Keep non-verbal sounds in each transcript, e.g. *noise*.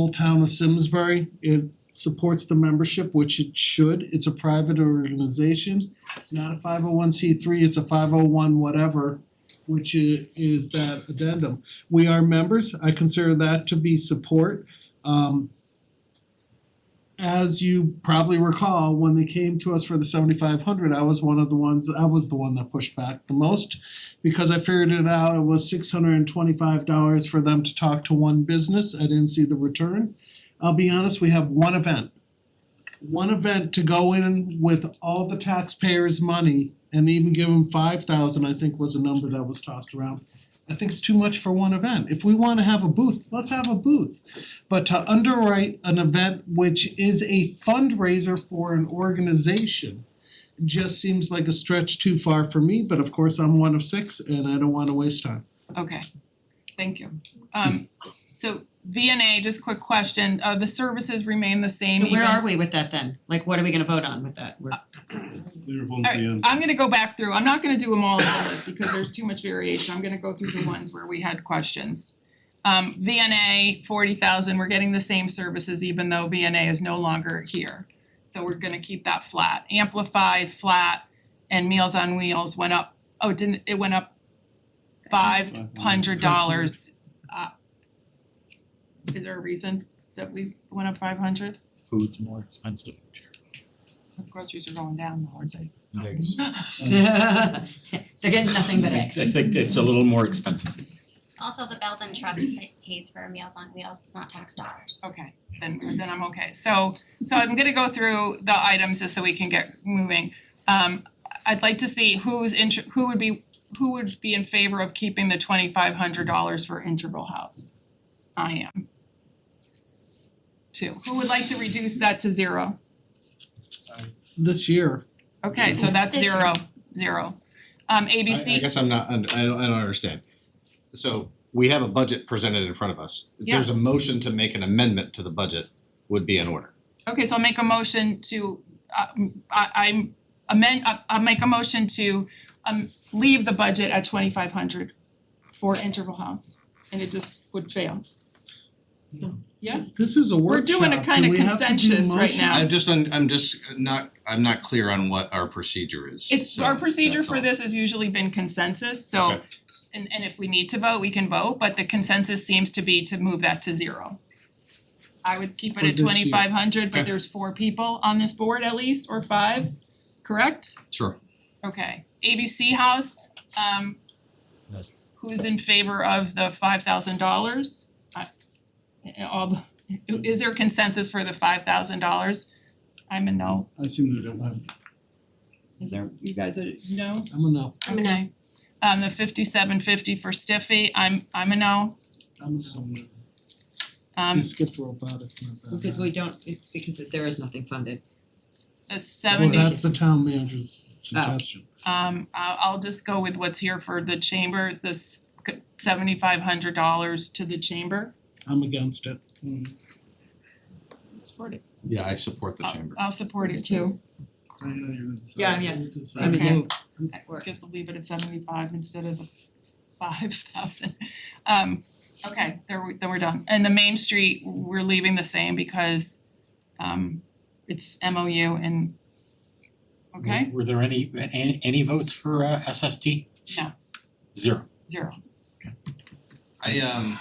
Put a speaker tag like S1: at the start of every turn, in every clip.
S1: Old Town of Simsbury. It supports the membership, which it should. It's a private organization. It's not a five oh one C three, it's a five oh one whatever, which i- is that addendum. We are members. I consider that to be support. Um as you probably recall, when they came to us for the seventy five hundred, I was one of the ones, I was the one that pushed back the most because I figured it out, it was six hundred and twenty-five dollars for them to talk to one business, I didn't see the return. I'll be honest, we have one event. One event to go in with all the taxpayers' money and even give them five thousand, I think was a number that was tossed around. I think it's too much for one event, if we wanna have a booth, let's have a booth. But to underwrite an event which is a fundraiser for an organization just seems like a stretch too far for me, but of course I'm one of six and I don't wanna waste time.
S2: Okay, thank you. Um so VNA, just quick question, uh the services remain the same
S3: So
S2: even?
S3: where are we with that then? Like, what are we gonna vote on with that? *laughs* We're,
S4: We were both
S2: All
S4: the
S2: right,
S4: end.
S2: I'm gonna go back through, I'm not gonna do them all as a list because there's too much variation, I'm gonna go through the ones where we had questions. Um VNA, forty thousand, we're getting the same services even though VNA is no longer here. So we're gonna keep that flat, Amplify, flat, and Meals on Wheels went up, oh, it didn't, it went up five hundred dollars. Uh Is there a reason that we went up five hundred?
S5: food's more expensive.
S2: Groceries are going down though, aren't they?
S5: Eggs.
S3: they're getting nothing but
S5: I
S3: X.
S5: think it's a little more expensive.
S6: Also, the Belden Trust pa- pays for Meals on Wheels, it's not tax dollars.
S2: Okay, then then I'm okay. So so I'm gonna go through the items just so we can get moving. Um I'd like to see who's inter- who would be who would be in favor of keeping the twenty five hundred dollars for Interval House? I am. Two. Who would like to reduce that to zero?
S1: This year,
S2: Okay, so that's
S6: This-
S2: zero, zero. Um
S7: I I
S2: ABC,
S7: guess I'm not, und- I don't, I don't understand. So we have a budget presented in front of us. If there's a motion to make an amendment to the budget would be in order.
S2: okay, so I'll make a motion to uh I I'm amend I I'll make a motion to um leave the budget at twenty five hundred for interval house and it just would fail. Yeah,
S1: this is a
S2: We're
S1: workshop, do we
S2: doing a
S1: have
S2: kinda
S1: to do
S2: consensus right
S1: motions?
S2: now.
S7: I'm just, un- I'm just not, I'm not clear on what our procedure is.
S2: it's
S7: So
S2: our procedure
S7: that's
S2: for
S7: all.
S2: this has usually been consensus, so
S7: Okay.
S2: and and if we need to vote, we can vote, but the consensus seems to be to move that to zero. I would keep it
S1: For
S2: at
S1: this year.
S2: twenty five hundred, but
S7: Okay.
S2: there's four people on this board at least, or five, correct?
S7: Sure.
S2: Okay, ABC House, um
S5: Yes.
S2: who's in favor of the five thousand dollars? All the, is there consensus for the five thousand dollars? I'm a no.
S4: I seem to don't have.
S2: Is there, you guys are no?
S1: I'm a no,
S6: I'm a no.
S2: Okay. Um the fifty-seven fifty for Stiffy, I'm I'm a no.
S1: I'm a no.
S2: Um
S1: We skipped rope out, it's not that
S3: Because
S1: bad.
S3: we don't, because there is nothing funded.
S2: the
S1: Well,
S2: seventy, um
S1: that's the town manager's suggestion.
S2: I'll I'll just go with what's here for the chamber, this seventy-five hundred dollars to the chamber.
S1: I'm against it.
S4: Mm,
S3: Support it.
S7: Yeah, I support the
S2: I'll-
S7: chamber.
S2: I'll support it too.
S4: I know you're gonna decide.
S3: Yeah, yes.
S1: Decide.
S3: I mean,
S2: Okay.
S3: yes, I'm
S2: I
S3: support.
S2: guess we'll leave it at seventy-five instead of five thousand. Um, okay, there we, then we're done. And the Main Street, we're leaving the same because um it's MOU and okay,
S5: Were there any, any, any votes for uh, SST?
S2: No.
S5: Zero.
S2: zero.
S7: I um,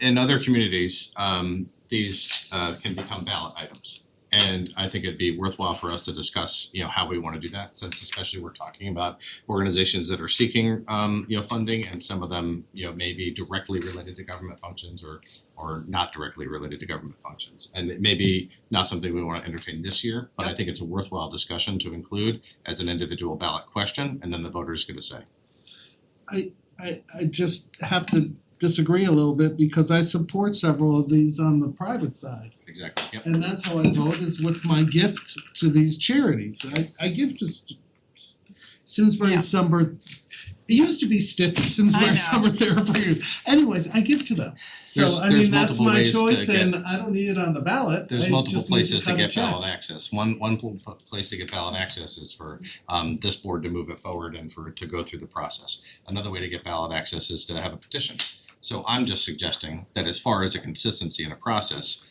S7: in other communities, um, these uh can become ballot items. And I think it'd be worthwhile for us to discuss, you know, how we wanna do that, since especially we're talking about organizations that are seeking um, you know, funding and some of them, you know, may be directly related to government functions or or not directly related to government functions. And it may be not something we wanna entertain this year, but I think it's a worthwhile discussion to include as an individual ballot question, and then the voter is gonna say.
S1: I I just have to disagree a little bit because I support several of these on the private side.
S7: Exactly, yep.
S1: and that's how I vote is with my gift to these charities. I I give to S- S- Simsbury
S2: Yeah.
S1: Summer, it used to be Stiffy,
S2: I know.
S1: Simsbury Summer Therapy. Anyways, I give to them.
S7: There's-
S1: So I
S7: there's
S1: mean, that's
S7: multiple
S1: my
S7: ways to
S1: choice
S7: get-
S1: and I don't need it on the ballot.
S7: There's
S1: I
S7: multiple
S1: just need
S7: places to
S1: cut a
S7: get
S1: check.
S7: ballot access. One one pl- pl- place to get ballot access is for um this board to move it forward and for it to go through the process. Another way to get ballot access is to have a petition. So I'm just suggesting that as far as a consistency in a process,